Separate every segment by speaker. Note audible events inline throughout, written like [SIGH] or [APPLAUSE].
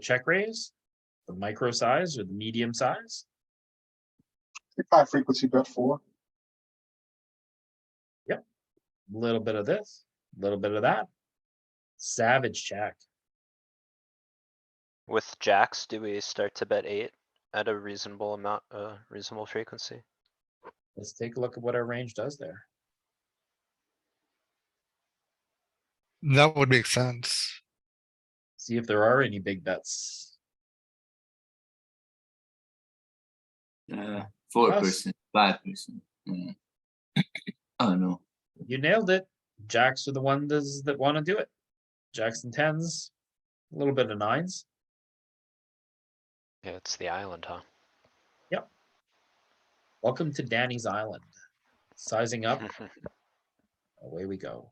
Speaker 1: check raise, the micro size or the medium size.
Speaker 2: High frequency bet four.
Speaker 1: Little bit of this, little bit of that. Savage check.
Speaker 3: With jacks, do we start to bet eight at a reasonable amount, uh, reasonable frequency?
Speaker 1: Let's take a look at what our range does there.
Speaker 4: That would make sense.
Speaker 1: See if there are any big bets.
Speaker 5: Uh, four
Speaker 1: Us.
Speaker 5: percent, five percent. Yeah. [COUGHS] oh no,
Speaker 1: You nailed it. Jacks are the ones that want to do it. Jacks and tens, a little bit of nines.
Speaker 3: Yeah, it's the island, huh?
Speaker 1: Welcome to Danny's Island. Sizing up,
Speaker 3: [LAUGHS]
Speaker 1: away we go.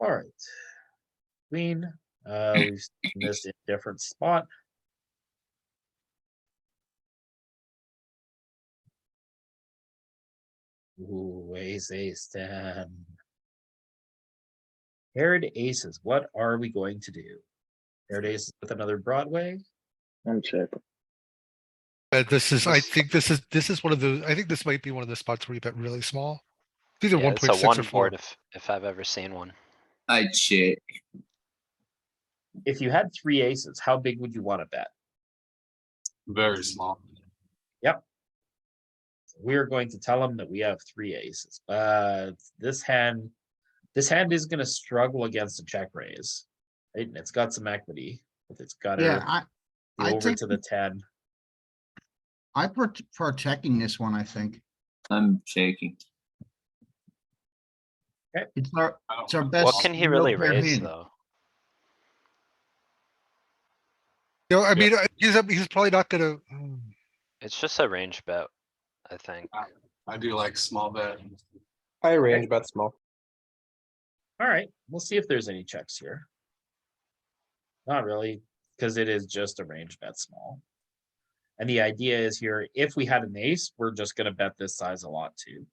Speaker 1: Alright. Queen, uh, we've seen this in different spot. Ooh, ace, ace, ten. Paired aces, what are we going to do? Paired aces with another Broadway?
Speaker 2: I'm checking.
Speaker 4: But Uh, this is, I
Speaker 3: This-
Speaker 4: think this is, this is one of those, I think this might be one of the spots where you bet really small. It's Either
Speaker 3: Yeah,
Speaker 4: one
Speaker 3: It's a
Speaker 4: point six or
Speaker 3: one
Speaker 4: four.
Speaker 3: board if, if I've ever seen one.
Speaker 5: I check.
Speaker 1: If you had three aces, how big would you want to bet?
Speaker 6: Very small.
Speaker 1: we're going to tell them that we have three aces, but this hand, this hand is gonna struggle against a check raise. Right, and it's got some equity, but it's got
Speaker 7: Yeah,
Speaker 1: to
Speaker 7: I, I
Speaker 1: over
Speaker 7: think-
Speaker 1: to the ten.
Speaker 7: I per- for checking this one, I think.
Speaker 5: I'm checking.
Speaker 7: It's our,
Speaker 6: I don't
Speaker 7: it's our
Speaker 6: know.
Speaker 7: best.
Speaker 3: What Oh, can he
Speaker 7: real
Speaker 3: really
Speaker 7: pair
Speaker 3: raise
Speaker 7: hand.
Speaker 3: though?
Speaker 4: You know, I
Speaker 6: Yeah.
Speaker 4: mean, I- he's, he's probably not gonna, mm.
Speaker 3: It's just a range bet, I think.
Speaker 6: I do like small bet.
Speaker 8: I range bet
Speaker 6: [LAUGHS]
Speaker 8: small.
Speaker 1: Alright, we'll see if there's any checks here. Not really, because it is just a range bet small. And the idea is here, if we had an ace, we're just gonna bet this size a lot too.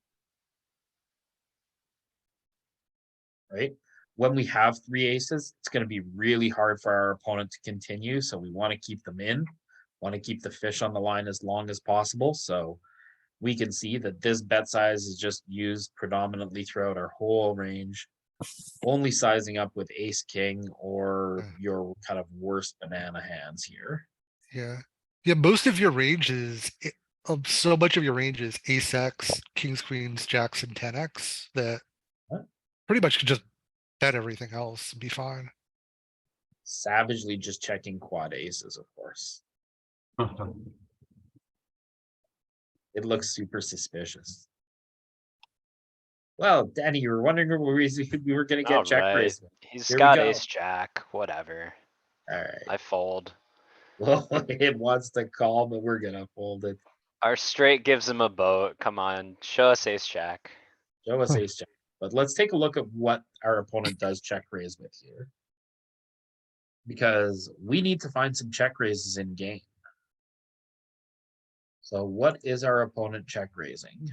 Speaker 1: Right? When we have three aces, it's gonna be really hard for our opponent to continue, so we wanna keep them in. Wanna keep the fish on the line as long as possible, so we can see that this bet size is just used predominantly throughout our whole range only sizing up with ace king or
Speaker 4: Mm.
Speaker 1: your kind of worst banana hands here.
Speaker 4: yeah. Yeah, most of your ranges, i- of um, so much of your ranges, ace X, kings, queens, jacks and ten X that
Speaker 1: Huh?
Speaker 4: pretty much could just bet everything else and be fine.
Speaker 1: Savagely just checking quad aces, of course. It looks super suspicious. Well, Danny, you were wondering if we [LAUGHS] we were gonna get check
Speaker 3: Alright,
Speaker 1: raised.
Speaker 3: He's
Speaker 1: Here we
Speaker 3: got
Speaker 1: go.
Speaker 3: ace jack, whatever.
Speaker 1: Alright,
Speaker 3: I fold.
Speaker 1: [LAUGHS] well, it wants to call, but we're gonna fold it.
Speaker 3: Our straight gives him a boat. Come on, show us ace jack.
Speaker 1: Show us
Speaker 4: Huh.
Speaker 1: ace jack, but let's take a look at what our opponent does check raise with here. Because we need to find some check raises in game. So what is our opponent check raising?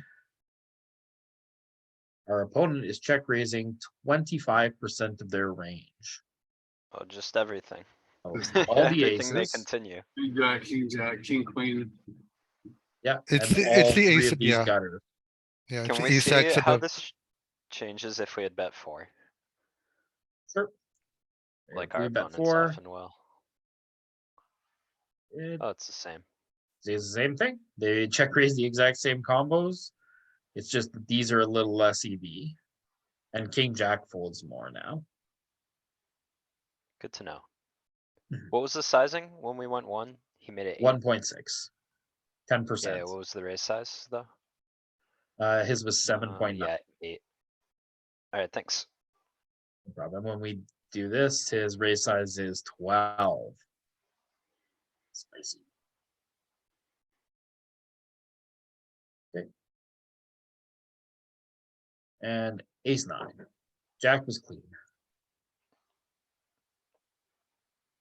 Speaker 1: Our opponent is check raising twenty-five percent of their
Speaker 3: [LAUGHS]
Speaker 1: range.
Speaker 3: Oh, just everything.
Speaker 1: So it's
Speaker 3: [LAUGHS]
Speaker 1: All the
Speaker 3: Everything they
Speaker 1: aces,
Speaker 3: continue.
Speaker 6: Big jack, uh, king jack, king queen.
Speaker 1: yeah.
Speaker 4: It's
Speaker 1: and
Speaker 4: the- it's
Speaker 1: all
Speaker 4: the
Speaker 1: three
Speaker 4: ace
Speaker 1: of
Speaker 4: of-
Speaker 1: these
Speaker 4: yeah.
Speaker 1: gutter.
Speaker 4: Yeah, it's
Speaker 3: Can
Speaker 4: an
Speaker 3: we
Speaker 4: ace
Speaker 3: see
Speaker 4: X and
Speaker 3: how
Speaker 4: a-
Speaker 3: this ch- changes if we had bet four,
Speaker 1: Sure.
Speaker 3: like
Speaker 1: We
Speaker 3: our
Speaker 1: bet
Speaker 3: opponents
Speaker 1: four,
Speaker 3: often will?
Speaker 1: it
Speaker 3: Oh, it's the same.
Speaker 1: It's the same thing. They check raise the exact same combos. It's just that these are a little less EV. And king jack folds more now.
Speaker 3: Good to know.
Speaker 1: Mhm.
Speaker 3: What was the sizing when we went one? He made it eight.
Speaker 1: One point six. Ten
Speaker 3: Yeah,
Speaker 1: percent.
Speaker 3: what was the raise size though?
Speaker 1: Uh, his was seven
Speaker 3: Uh,
Speaker 1: point nine
Speaker 3: Yeah, eight. Alright, thanks.
Speaker 1: problem. When we do this, his raise size is twelve. Spicy. Okay. And ace nine. Jack was clean.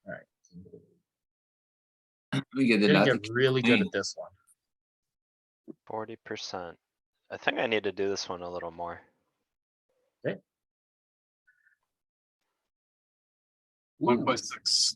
Speaker 1: Alright.
Speaker 5: We get a
Speaker 1: Gonna
Speaker 5: lot. of
Speaker 1: get really good at
Speaker 5: clean.
Speaker 1: this one.
Speaker 3: Forty percent. I think I need to do this one a little more.
Speaker 6: one point six.